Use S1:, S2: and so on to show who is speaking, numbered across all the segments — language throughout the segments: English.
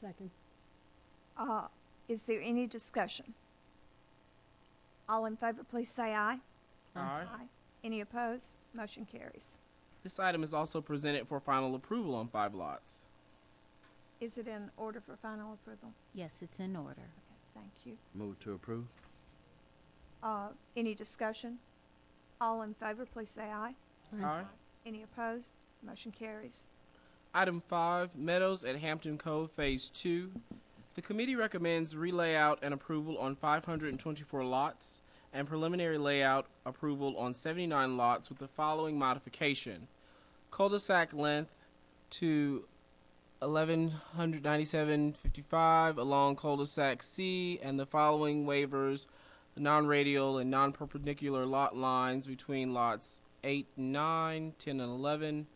S1: Second.
S2: Uh, Is there any discussion? All in favor, please say aye.
S1: Aye.
S2: Any opposed? Motion carries.
S3: This item is also presented for final approval on five lots.
S2: Is it in order for final approval?
S4: Yes, it's in order.
S2: Okay, Thank you.
S5: Move to approve?
S2: Uh, Any discussion? All in favor, please say aye.
S3: Aye.
S2: Any opposed? Motion carries.
S3: Item five, Meadows at Hampton Cove Phase Two. The committee recommends relayout and approval on five hundred and twenty-four lots and preliminary layout approval on seventy-nine lots with the following modification. Cul-de-sac length to eleven hundred ninety-seven fifty-five along cul-de-sac C and the following waivers, non-radial and non-perpendicular lot lines between lots eight and nine, ten and eleven,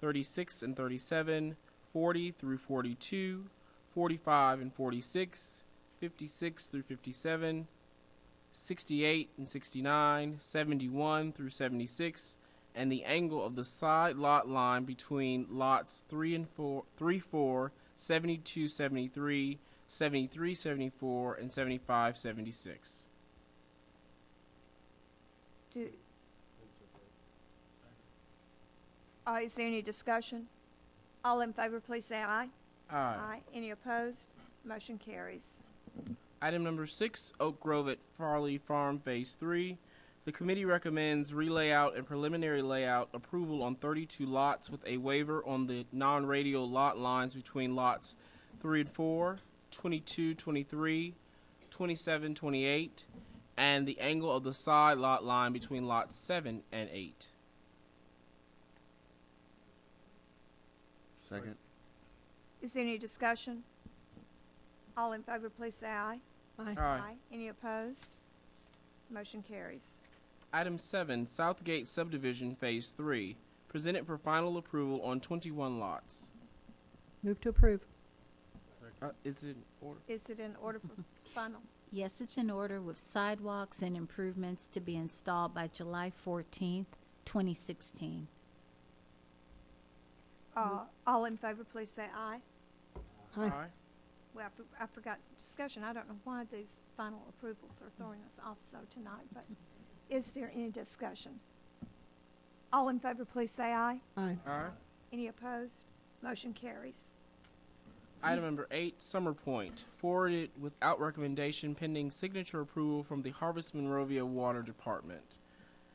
S3: 36 and 37, 40 through 42, 45 and 46, 56 through 57, 68 and 69, 71 through 76, and the angle of the side lot line between lots 3 and 4, 3 4, 72 73, 73 74, and 75 76.
S2: Do, Uh, is there any discussion? All in favor, please say aye. Any opposed? Motion carries.
S3: Item number six, Oak Grove at Farley Farm Phase Three. The committee recommends relayout and preliminary layout approval on thirty-two lots with a waiver on the non-radial lot lines between lots three and four, 22, 23, 27, 28, and the angle of the side lot line between lots seven and eight.
S5: Second?
S2: Is there any discussion? All in favor, please say aye.
S1: Aye.
S2: Any opposed? Motion carries.
S3: Item 7, Southgate Subdivision Phase 3, presented for final approval on 21 lots.
S1: Move to approve.
S3: Uh, is it order?
S2: Is it in order for final?
S4: Yes, it's in order with sidewalks and improvements to be installed by July fourteenth, twenty sixteen.
S2: Uh, all in favor, please say aye.
S1: Aye.
S2: Well, I for- I forgot discussion. I don't know why these final approvals are throwing us off so tonight, but is there any discussion? All in favor, please say aye.
S1: Aye.
S3: Aye.
S2: Any opposed? Motion carries.
S3: Item number eight, Summer Point, forwarded without recommendation pending signature approval from the Harvest Monrovia Water Department.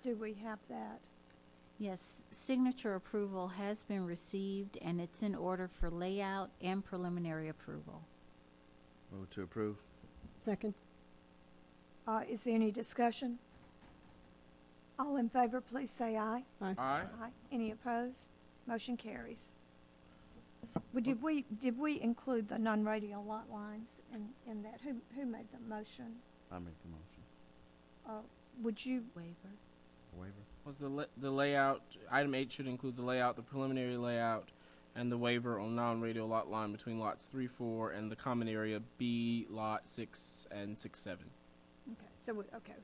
S2: Do we have that?
S4: Yes, signature approval has been received and it's in order for layout and preliminary approval.
S5: Move to approve?
S1: Second.
S2: Uh, is there any discussion? All in favor, please say aye.
S3: Aye.
S2: Aye. Any opposed? Motion carries. Well, Did we, did we include the non-radio lot lines in, in that? Who, who made the motion?
S5: I make the motion.
S2: Uh, Would you,
S4: Waiver?
S5: Waiver?
S3: Was the la- the layout item eight should include the layout, the preliminary layout, and the waiver on non-radial lot line between lots three, four, and the common area B lot six and six seven.
S2: okay, so, we- okay,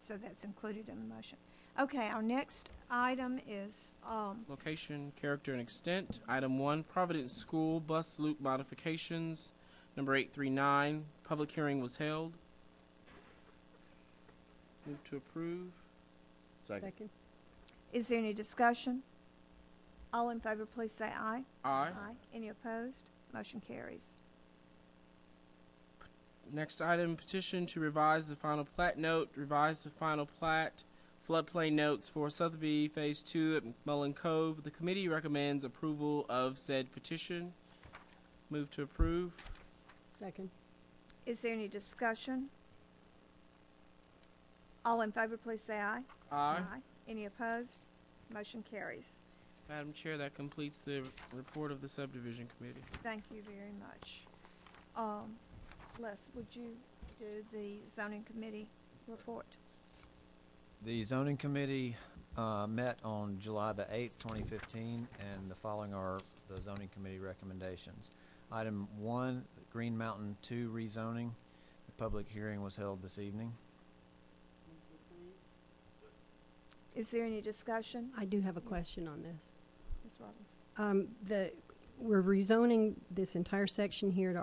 S2: so that's included in the motion. Okay, our next item is, um,
S3: Location, character, and extent. Item one, Providence School bus loop modifications. Number eight three nine. Public hearing was held. Move to approve.
S5: Second?
S1: Second.
S2: is there any discussion? All in favor, please say aye.
S3: Aye.
S2: Any opposed? Motion carries.
S3: Next item, petition to revise the final plat note, revise the final plat, floodplain notes for Sotheby Phase Two at McMullen Cove. The committee recommends approval of said petition. Move to approve.
S1: Second.
S2: Is there any discussion? All in favor, please say aye. Any opposed? Motion carries.
S3: Madam Chair, that completes the report of the subdivision committee.
S2: Thank you very much. Um, Les, would you do the zoning committee report?
S6: The zoning committee uh, met on July the 8th, 2015, and the following are the zoning committee recommendations. Item one, Green Mountain 2 rezoning. The public hearing was held this evening.
S2: Is there any discussion?
S1: I do have a question on this.
S2: Ms. Robbins?
S1: Um, the, we're rezoning this entire section here to